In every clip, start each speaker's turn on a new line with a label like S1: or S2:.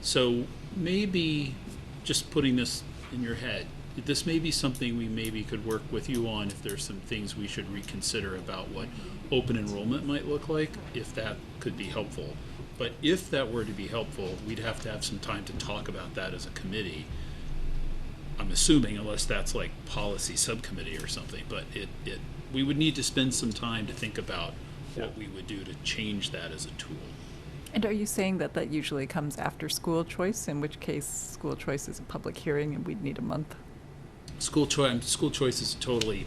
S1: So maybe, just putting this in your head, this may be something we maybe could work with you on if there's some things we should reconsider about what open enrollment might look like, if that could be helpful. But if that were to be helpful, we'd have to have some time to talk about that as a committee. I'm assuming unless that's like policy subcommittee or something, but it, it, we would need to spend some time to think about what we would do to change that as a tool.
S2: And are you saying that that usually comes after school choice, in which case school choice is a public hearing and we'd need a month?
S1: School choice, school choice is totally,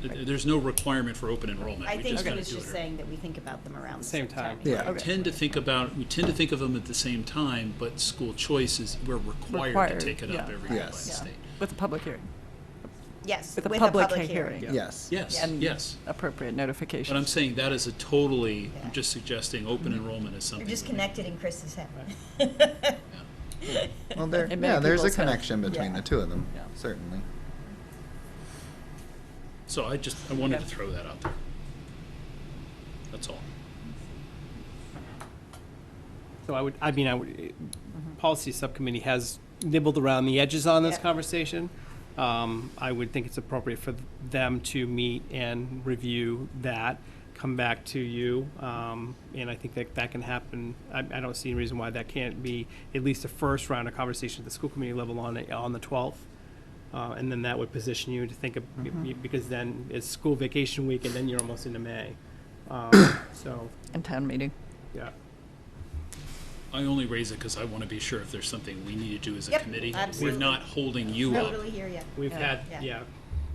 S1: th- there's no requirement for open enrollment.
S3: I
S1: We
S3: think
S1: just
S3: he
S1: gotta
S3: was
S1: do it
S3: just
S1: or-
S3: saying that we think about them around the
S4: Same
S3: same
S4: time.
S3: time.
S5: Yeah.
S1: We Tend to think about, we tend to think of them at the same time, but school choice is, we're required
S2: Required,
S1: to take it up
S2: yeah.
S1: every year by the
S5: Yes.
S2: Yeah,
S1: state.
S2: With a public hearing,
S3: Yes,
S2: with a public he- hearing.
S5: Yes.
S1: Yes,
S2: And
S1: yes.
S2: Appropriate notification.
S1: But I'm saying that is a totally, I'm
S3: Yeah.
S1: just suggesting open enrollment is something.
S3: You're just
S1: that we-
S3: connected in Chris's head.
S5: Well, there,
S2: And many
S5: yeah, there's a
S2: people's health.
S5: connection between
S3: Yeah.
S5: the two of them,
S2: Yeah.
S5: certainly.
S1: So I just, I wanted to
S2: Yeah.
S1: throw that out there. That's all.
S4: So I would, I mean, I would, uh, policy subcommittee has nibbled around the edges on this
S3: Yeah.
S4: conversation. Um, I would think it's appropriate for them to meet and review that, come back to you. Um, and I think that that can happen. I, I don't see any reason why that can't be at least a first round of conversation at the school committee level on, it- on the twelfth. Uh, and then that would position you to think of,
S3: Mm-hmm.
S4: because then it's school vacation week and then you're almost into May. Um, so,
S2: And town meeting.
S4: yeah.
S1: I only raise it because I want to be sure if there's something we need to do as a
S3: Yep,
S1: committee.
S3: absolutely.
S1: We're not holding you up.
S3: Totally hear you.
S4: We've had,
S3: Yeah.
S4: yeah,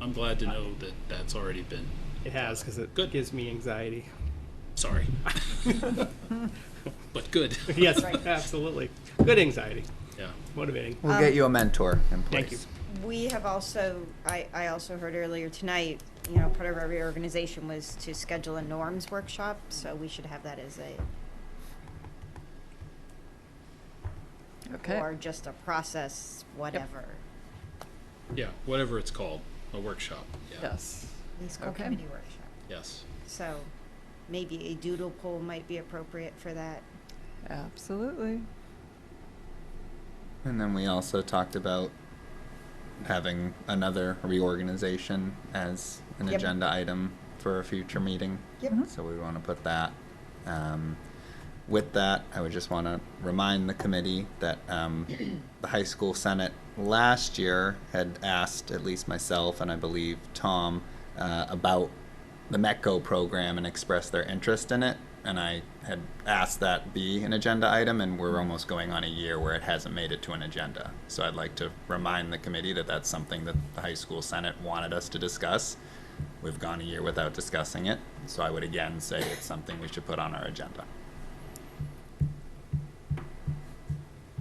S1: I'm glad to know that that's already been,
S4: it has, because it
S1: Good.
S4: gives me anxiety.
S1: sorry. But good,
S4: Yes,
S3: Right.
S4: absolutely. Good anxiety,
S1: yeah.
S4: motivating.
S5: We'll get you a mentor in place.
S4: Thank you.
S3: We have also, I, I also heard earlier tonight, you know, part of our reorganization was to schedule a norms workshop, so we should have that as a,
S2: Okay.
S3: or just a process, whatever.
S1: Yeah, whatever it's called, a workshop, yeah,
S2: Yes.
S3: The school
S2: Okay.
S3: committee workshop.
S1: yes.
S3: So maybe a doodle poll might be appropriate for that.
S2: Absolutely.
S5: And then we also talked about having another reorganization as an
S3: Yep.
S5: agenda item for a future meeting.
S3: Yep.
S5: So we want to put that. Um, with that, I would just want to remind the committee that um, the high school senate last year had asked, at least myself and I believe Tom, uh, about the METCO program and expressed their interest in it. And I had asked that be an agenda item, and we're almost going on a year where it hasn't made it to an agenda. So I'd like to remind the committee that that's something that the high school senate wanted us to discuss. We've gone a year without discussing it, so I would again say it's something we should put on our agenda.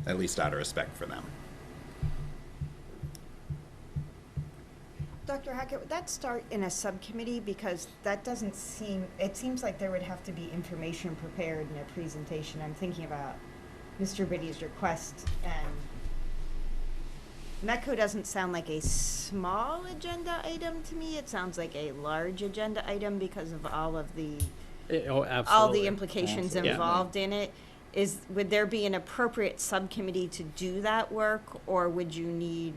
S5: At least out of respect for them.
S3: Dr. Hackett, would that start in a subcommittee? Because that doesn't seem, it seems like there would have to be information prepared in a presentation. I'm thinking about Mr. Biddy's request and METCO doesn't sound like a small agenda item to me. It sounds like a large agenda item because of all of the,
S4: Eh, Oh,
S3: all the
S4: absolutely.
S3: implications
S4: Yeah.
S3: involved in it. Is, would there be an appropriate subcommittee to do that work? Or would you need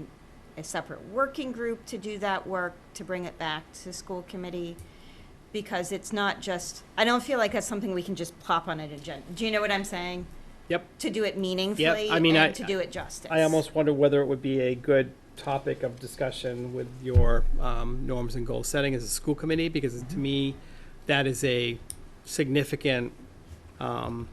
S3: a separate working group to do that work, to bring it back to school committee? Because it's not just, I don't feel like that's something we can just plop on an agenda. Do you know what I'm saying?
S4: Yep.
S3: To do it meaningfully
S4: mean, I-
S3: and to do it justice.
S4: I almost wonder whether it would be a good topic of discussion with your um, norms and goal setting as a school committee, because to me, that is a significant, um,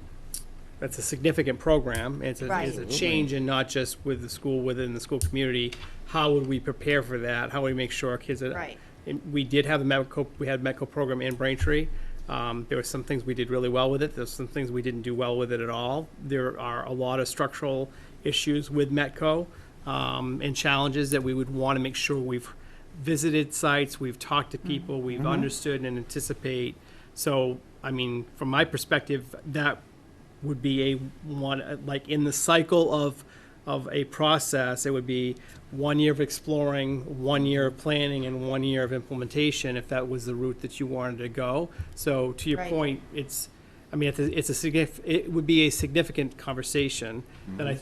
S4: that's a significant program. It's a, it's a
S3: Right.
S4: change and not just with the school, within the school community. How would we prepare for that? How would we make sure our kids are
S3: Right.
S4: uh, And we did have a medical, we had a medical program in Braintree. Um, there were some things we did really well with it. There's some things we didn't do well with it at all. There are a lot of structural issues with Metco um, and challenges that we would want to make sure we've visited sites, we've talked to people, we've understood and anticipate. So, I mean, from my perspective, that would be a one like in the cycle of of a process it would be one year of exploring one year of planning and one year of implementation if that was the route that you wanted to go so to your
S3: Right.
S4: point it's i mean it's a, it's a signif- it would be a significant conversation that i